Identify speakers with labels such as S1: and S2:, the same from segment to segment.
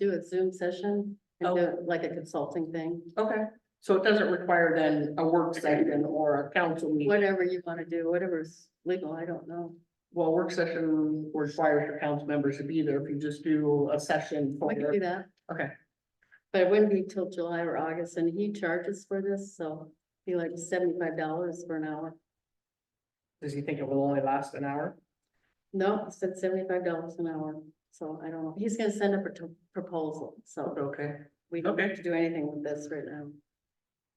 S1: do a Zoom session and do
S2: Okay.
S1: it like a consulting thing,
S2: Okay, so it doesn't require then a work session or a council meeting.
S1: whatever you want to do, whatever's legal, I don't know.
S2: Well, work session requires your council members to be there if you just do a session. for
S1: We could do that.
S2: Okay.
S1: But it wouldn't be till July or August and he charges for this, so he like seventy-five dollars for an hour.
S2: Does he think it will only last an hour?
S1: No, it's at seventy-five dollars an hour, so I don't know. He's gonna send up a t- proposal, so
S2: Okay,
S1: we don't have
S2: Okay.
S1: to do anything with this right now.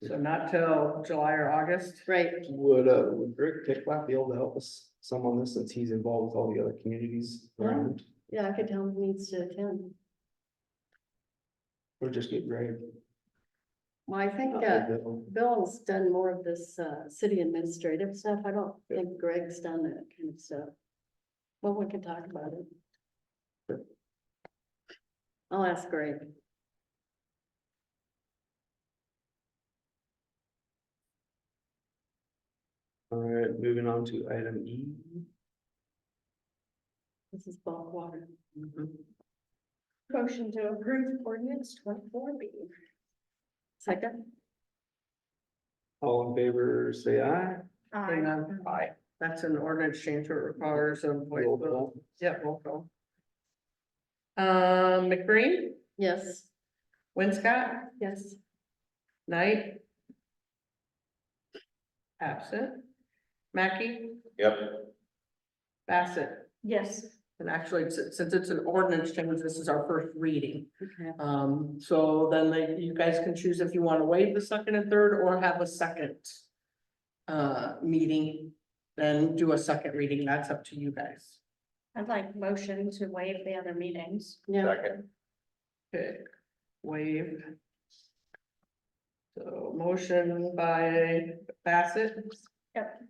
S2: so not till July or August?
S1: Right,
S3: Would, uh, would Rick Picklap be able to help us some on this since he's involved with all the other communities around?
S1: yeah, I could tell him he needs to attend.
S3: Or just get Greg?
S1: Well, I think, uh, Bill's done more of this uh city administrative stuff. I don't
S3: Yeah.
S1: think Greg's done that kind of stuff. Well, we can talk about it. I'll ask Greg.
S3: All right, moving on to item E.
S1: This is bulk water.
S2: Mm-hmm.
S4: Motion to approve ordinance twenty-four B.
S1: Second,
S3: All in favor, say aye.
S2: Hang on. Aye. That's an ordinance change that requires a voice
S3: Roll
S2: vote.
S3: call.
S2: Yeah, roll call. Um, McBreen,
S1: yes.
S2: Winscott,
S1: Yes.
S2: Knight. Absent. Mackey,
S5: Yep.
S2: Bassett.
S4: Yes,
S2: And actually, s- since it's an ordinance change, this is our first reading.
S1: Okay,
S2: Um, so then they- you guys can choose if you want to waive the second and third or have a second. Uh, meeting, then do a second reading. That's up to you guys.
S4: I'd like motion to waive the other meetings.
S1: yeah,
S5: Second.
S2: Okay, waived. So motion by Bassett.
S4: Yep.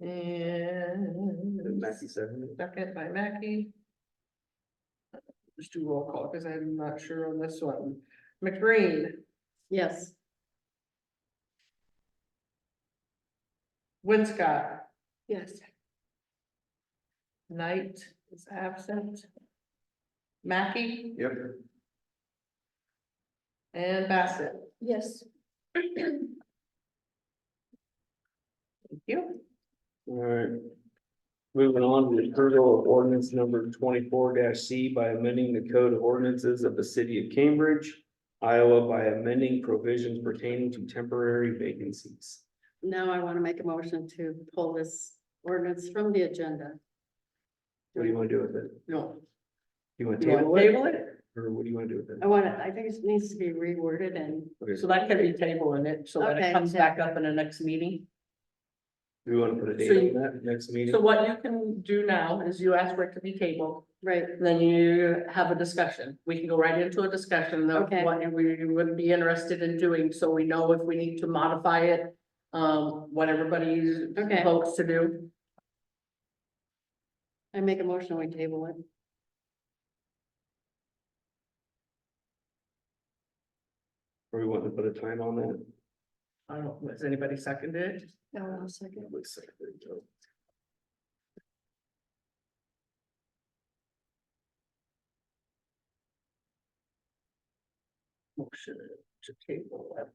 S2: And
S3: Mackey seconded.
S2: second by Mackey. Just do roll call because I'm not sure on this one. McBreen,
S1: yes,
S2: Winscott,
S4: Yes.
S2: Knight is absent. Mackey
S3: Yep.
S2: and Bassett.
S4: Yes.
S2: Thank you.
S3: All right. Moving on to approval of ordinance number twenty-four C by amending the code of ordinances of the city of Cambridge, Iowa by amending provisions pertaining to temporary vacancies.
S1: now I want to make a motion to pull this ordinance from the agenda.
S3: What do you want to do with it?
S2: No,
S3: You want to
S2: You wanna
S3: table it?
S2: table it?
S3: Or what do you want to do with it?
S1: I want to, I think it needs to be reworded and,
S3: Okay,
S2: so that can be tabling it so that
S1: Okay,
S2: it comes
S1: so-
S2: back up in the next meeting.
S3: Do we want to put a
S2: So
S3: date
S2: you-
S3: on that next meeting?
S2: So what you can do now is you ask for it to be tabled,
S1: right,
S2: and then you have a discussion. We can go right into a discussion of
S1: Okay.
S2: what we would be interested in doing, so we know if we need to modify it. Um, what everybody's
S1: Okay.
S2: votes to do.
S1: I make a motion, we table it.
S3: Or we want to put a time on that?
S2: I don't, know, has anybody seconded?
S4: No, second.
S3: Looks like they don't.
S2: Motion to table. it.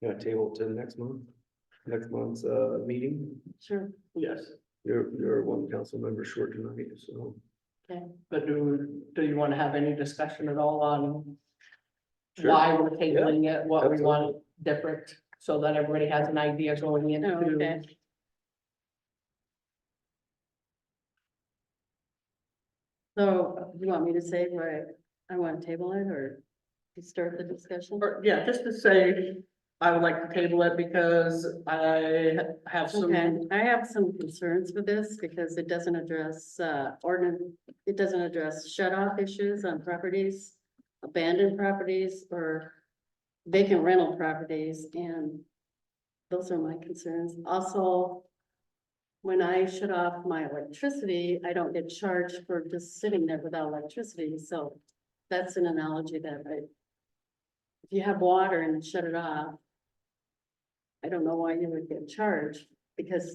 S3: You want to table it to the next month? Next month's, uh, meeting?
S1: Sure,
S2: Yes,
S3: You're, you're one council member short tonight, so.
S2: but do, do you wanna have any discussion at all on
S3: Sure.
S2: why we're tabling it, what we
S3: absolutely.
S2: want different, so that everybody has an idea going
S1: Oh,
S2: into
S1: okay. so uh, you want me to say why I want to table it or to start the discussion?
S2: Or, yeah, just to say, I would like to table it because I have
S1: Okay,
S2: some,
S1: I have some concerns with this because it doesn't address, uh, ordinance, it doesn't address shut off issues on properties, abandoned properties or vacant rental properties and those are my concerns. Also, when I shut off my electricity, I don't get charged for just sitting there without electricity, so that's an analogy that I if you have water and shut it off, I don't know why you would get charged because